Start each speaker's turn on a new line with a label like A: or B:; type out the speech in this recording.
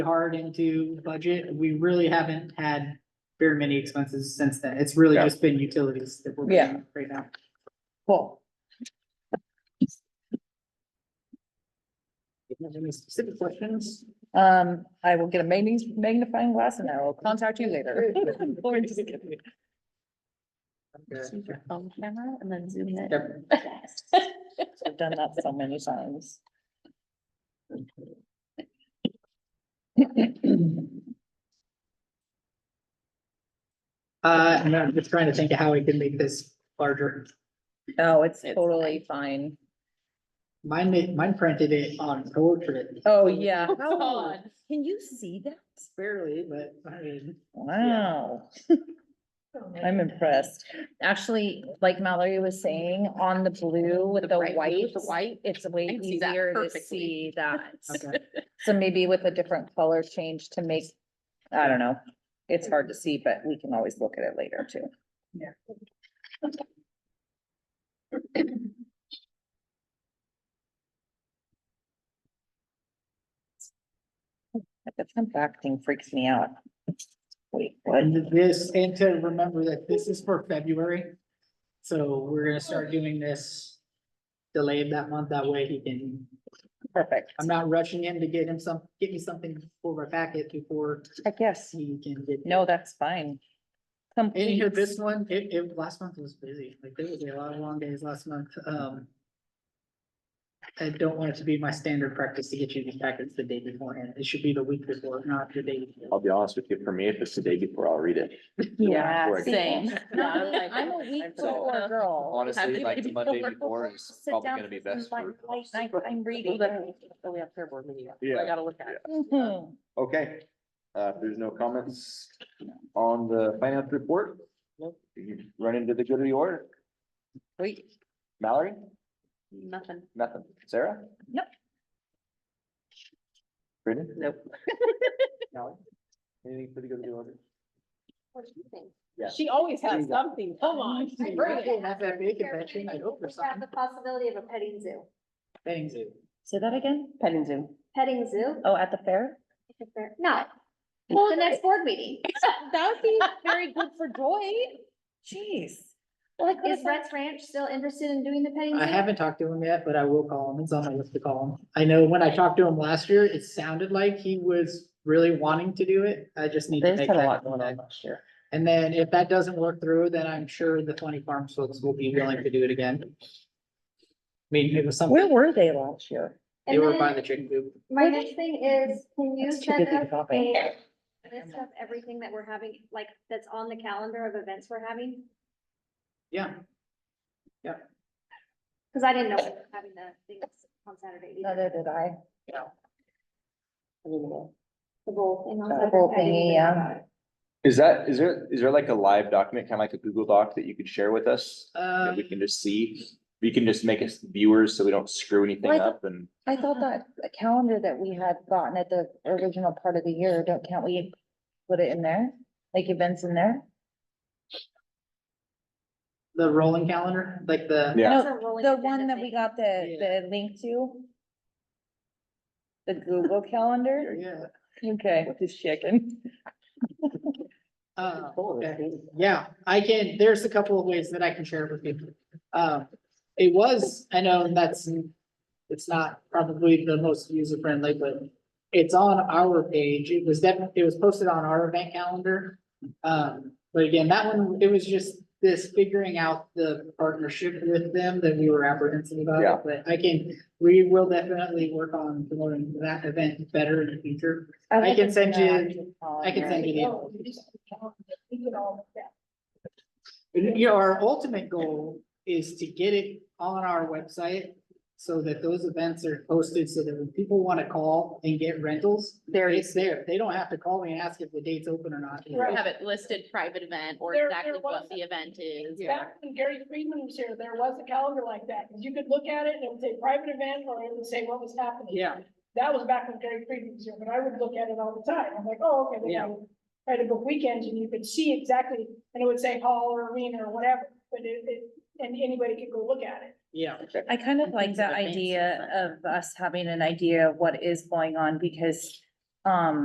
A: hard into budget. We really haven't had very many expenses since then. It's really
B: Yeah.
A: just been utilities that we're
C: Yeah.
A: paying right now.
C: Cool.
A: Do you have Any specific questions?
C: Um, I will get a magni- magnifying glass and I will contact you later.
A: Okay.
C: Phone camera and then zoom in.
A: Yep.
C: I've done that so many times.
A: Uh, and I'm just trying to think of how we can make this larger.
C: Oh, it's totally fine.
A: Mine, ma- mine printed it on portrait.
C: Oh, yeah.
A: God.
C: Can you see that?
A: Barely, but I mean.
C: Wow. I'm impressed. Actually, like Mallory was saying, on the blue with the
D: bright blue
C: white,
D: with the white.
C: it's way
D: I can see that
C: easier to
D: perfectly.
C: see that.
A: okay.
C: So maybe with a different color change to make, I don't know. It's hard to see, but we can always look at it later too. Like, The front back thing freaks me out. Wait, what?
A: And this, and to remember that this is for February. So we're gonna start doing this delayed that month. That way he can,
C: Perfect.
A: I'm not rushing him to get him some, get me something for a packet before
C: I guess.
A: he can get.
C: No, that's fine.
A: And
C: Complete.
A: here, this one, it, it, last month was busy. Like there was a lot of long days last month. Um. I don't want it to be my standard practice to get you these packets the day beforehand. It should be the week before, not the day. before.
B: I'll be honest with you, for me, if it's the day before, I'll read it.
C: Yeah.
B: Right.
D: Same.
C: No, I'm like- I'm a
D: I'm
C: week
D: so-
C: before girl.
D: Happy
B: Honestly, like the
D: day
B: Monday
D: before.
B: before is
C: Sit
B: probably
C: down
B: gonna be
C: for
B: best
C: some
B: for.
C: light night. I'm
D: Well,
C: reading.
D: then- then we have fair board meeting. so
B: Yeah,
D: I gotta look at it.
C: Mhm.
B: Okay, uh, if there's no comments on the finance report. You run into the good of the order.
C: Wait,
B: Mallory,
D: Nothing.
B: nothing. Sarah?
C: Nope.
B: Brittany?
D: Nope.
B: Mallory? Anything for the good of the order? Yeah.
D: She always
B: has
D: something.
C: Oh
D: Come
A: on. We'll have that big convention, I hope, or
E: We have
A: something.
E: the possibility of a petting zoo.
A: Thanks, dude.
C: say that again?
D: Petting zoo.
E: Petting zoo?
C: Oh, at the fair?
E: if they're- No, the next board meeting.
D: That would be very good for Joy.
C: Oh, Jeez.
E: Is Rhett's Ranch still interested in doing the petting zoo?
A: I haven't talked to him yet, but I will call him. It's on my list to call him. I know when I talked to him last year, it sounded like he was really wanting to do it. I just need to make that. contact.
D: last year.
A: And then if that doesn't work through, then I'm sure the twenty farms folks will be willing to do it again. I mean, it was
C: Where
A: something,
C: were they last year?
A: they
E: And
A: were by
E: then
A: the chicken coop.
E: my next thing is, can you
C: That's too
E: send
C: busy to
E: us
C: drop in.
E: a list of everything that we're having, like, that's on the calendar of events we're having?
A: Yeah,
E: Cause I didn't know we were having the things on Saturday either.
C: Neither did I.
E: The bowl thing on
C: The
E: Saturday.
C: bowl
E: I
C: thingy,
E: didn't even know
C: yeah.
E: about it.
B: Is that, is there, is there like a live document, kind of like a Google Doc that you could share with us?
A: uh,
B: That we can just see? We can just make us viewers so we don't screw anything
C: Like-
B: up and.
C: I thought that a calendar that we had gotten at the original part of the year, don't, can't we put it in there? Like events in there?
A: the rolling calendar, like the,
B: Yeah.
E: It's a rolling
C: Oh, The
E: agenda
C: one that we
E: thing.
C: got the, the link to? The Google Calendar?
A: yeah,
C: Okay, just checking.
A: uh, okay. Yeah, I can, there's a couple of ways that I can share it with people. Um, it was, I know that's, it's not probably the most user friendly, but it's on our page. It was definitely, it was posted on our event calendar. Um, but again, that one, it was just this figuring out the partnership with them that we were apprehensive about.
B: Yeah.
A: But I can, we will definitely work on promoting that event better in the future. I can send you- I can send you the. And, You know, our ultimate goal is to get it on our website so that those events are posted so that when people want to call and get rentals,
D: There
A: it's
D: is,
A: there. They don't have to call me and ask if the date's open or not.
D: have it listed private event or
F: There-
D: exactly
F: there
D: what
F: was-
D: the event is.
A: Yeah.
F: Back when Gary Friedman was here, there was a calendar like that, 'cause you could look at it and it would say private event, or it would say what was happening.
A: Yeah.
F: That was back when Gary Friedman was here, but I would look at it all the time, I'm like, oh, okay, they
A: Yeah.
F: have try to book weekends, and you could see exactly, and it would say hall or arena or whatever, but it, it, and anybody could go look at it.
A: Yeah,
C: I kind of
D: And
C: like
D: things that
C: the
D: advance
C: idea
D: us.
C: of us having an idea of what is going on because, um,